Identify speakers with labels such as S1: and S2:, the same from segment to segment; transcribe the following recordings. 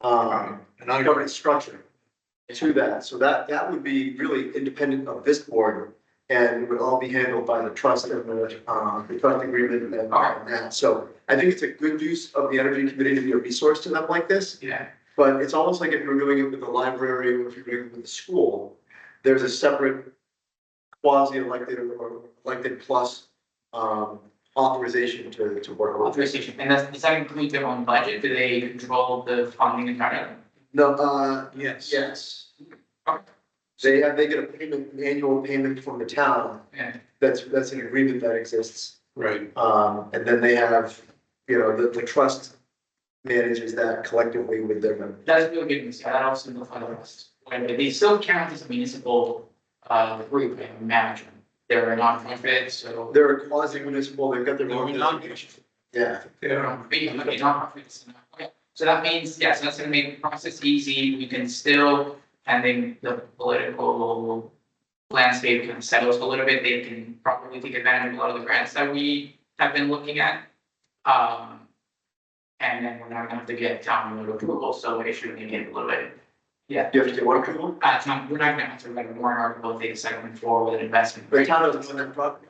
S1: um,
S2: And I,
S1: governance structure to that. So that, that would be really independent of this board and would all be handled by the trust and the, uh, the trust agreement and all of that. So I think it's a good use of the energy committee to be a resource to them like this,
S2: yeah,
S1: but it's almost like if you're doing it with the library or if you're doing it with the school, there's a separate quasi-elected or elected plus, um, authorization to, to work on.
S2: authorization, and that's, does that include their own budget, do they control the funding entirely?
S1: No, uh,
S3: Yes.
S1: yes. They have, they get a payment, an annual payment from the town,
S2: Yeah,
S1: that's, that's an agreement that exists.
S3: Right,
S1: Um, and then they have, you know, the, the trust manages that collectively with their members.
S2: that's really good news, yeah, that also simplifies the rest, when they still count as a municipal, uh, group and management. They're a nonprofit, so
S1: They're a quasi municipal, they've got their
S3: They're
S1: own.
S3: not-
S1: Yeah,
S3: yeah,
S2: they're not, they're not nonprofits, so not- okay. So that means, yes, that's gonna make the process easy, we can still, pending the political landscape kind of settles a little bit, they can probably take advantage of a lot of the grants that we have been looking at. Um, and then we're not gonna have to get town road approval, so it should be a little bit. Yeah,
S1: you have to get one approval,
S2: uh, town, we're not gonna have to write a warrant article if they decide to move forward with an investment.
S1: the town doesn't own that property.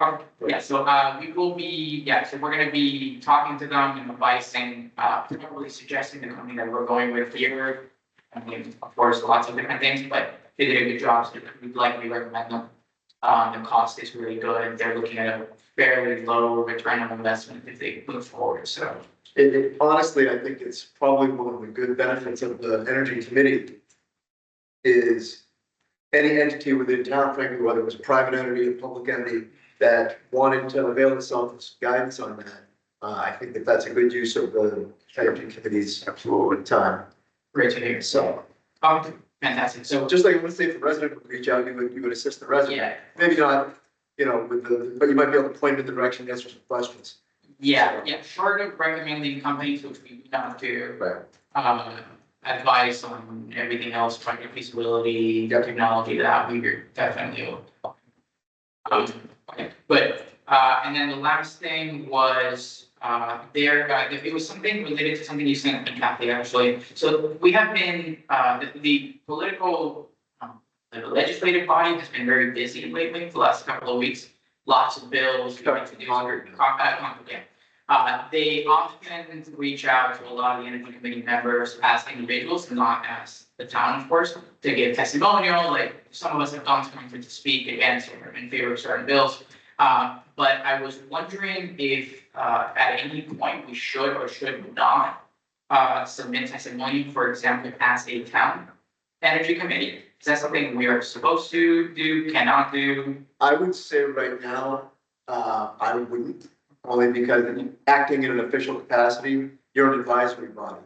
S2: Okay, yeah, so uh we will be, yeah, so we're gonna be talking to them and advising, uh probably suggesting the company that we're going with here. I mean, of course, lots of different things, but they did a good job, so we'd likely recommend them. Um the cost is really good, they're looking at a fairly low return on investment if they move forward, so.
S1: It, it, honestly, I think it's probably one of the good benefits of the energy committee. Is any entity within town, frankly, whether it was a private entity or public entity, that wanted to avail itself of some guidance on that. Uh, I think that that's a good use of the energy committee's absolute time,
S2: Great to hear, so,
S1: so,
S2: um, fantastic, so,
S1: just like, let's say if the resident would reach out, you would, you would assist the resident.
S2: yeah,
S1: Maybe not, you know, with the, but you might be able to point in the direction, answer some questions.
S2: yeah, yeah, short of recommending companies, which we do not do.
S1: Right.
S2: um, advice on everything else, project feasibility,
S1: Yep.
S2: technology, that we are definitely. open. Um, okay, but, uh, and then the last thing was, uh, there, uh, it was something related to something you sent to Kathy, actually. So we have been, uh, the, the political, um, the legislative body has been very busy lately, for the last couple of weeks. Lots of bills, we need to do,
S1: Congress.
S2: Con- uh, Congress, yeah. Uh, they often reach out to a lot of the energy committee members as individuals, not as the town, of course, to give testimonial, like some of us have gone to conference to speak against or in favor of certain bills. Uh, but I was wondering if, uh, at any point we should or should not, uh, submit testimony, for example, as a town energy committee. Is that something we are supposed to do, cannot do?
S1: I would say right now, uh, I wouldn't, only because acting in an official capacity, you're an advisory body,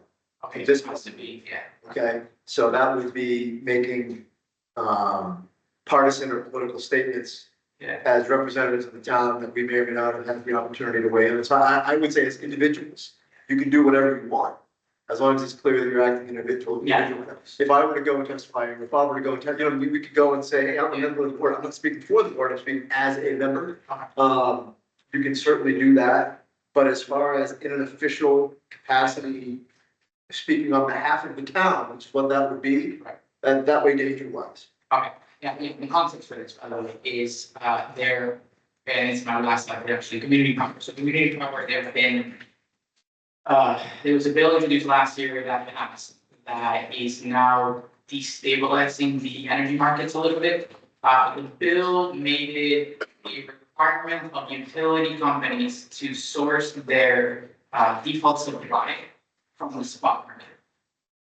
S2: Okay,
S1: This-
S2: this has to be, yeah.
S1: okay? So that would be making, um, partisan or political statements
S2: Yeah.
S1: as representatives of the town that we may or may not have had the opportunity to weigh in. So I, I would say as individuals, you can do whatever you want, as long as it's clear that you're acting individual.
S2: Yeah.
S1: individual. If I were to go and testify, or if I were to go and tell, you know, we we could go and say, hey, I'm a member of the board, I'm not speaking for the board, I'm speaking as a member. Um, you can certainly do that, but as far as in an official capacity, speaking on behalf of the town, which is what that would be.
S2: Right.
S1: And that way danger wise.
S2: Yeah, the the context for this, by the way, is uh there, and it's my last slide, but actually, community power, so community power, there have been. Uh, there was a bill introduced last year that passed, that is now destabilizing the energy markets a little bit. Uh, the bill made it a requirement of utility companies to source their uh default supply from the spot market.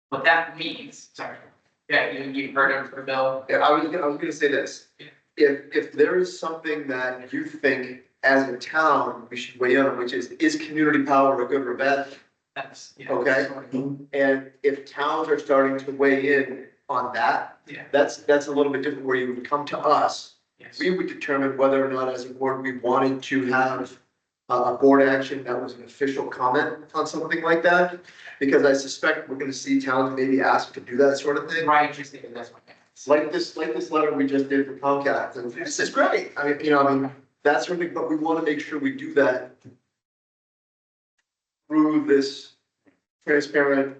S2: What that means, sorry, yeah, you you've heard of the bill,
S1: Yeah, I was, gonna- I was gonna say this.
S2: Yeah.
S1: If, if there is something that you think as a town, we should weigh in, on, which is, is community power a good or a bad? thing?
S2: That's, yeah.
S1: Okay. And if towns are starting to weigh in on that,
S2: Yeah,
S1: that's, that's a little bit different where you would come to us
S2: yes,
S1: we would determine whether or not as a board, we wanted to have a, a board action that was an official comment on something like that. Because I suspect we're gonna see towns maybe ask to do that sort of thing.
S2: right, interesting, because that's what.
S1: It's Like this, like this letter we just did for Comcast, and this is great, I mean, you know, I mean, that's sort of, but we wanna make sure we do that through this transparent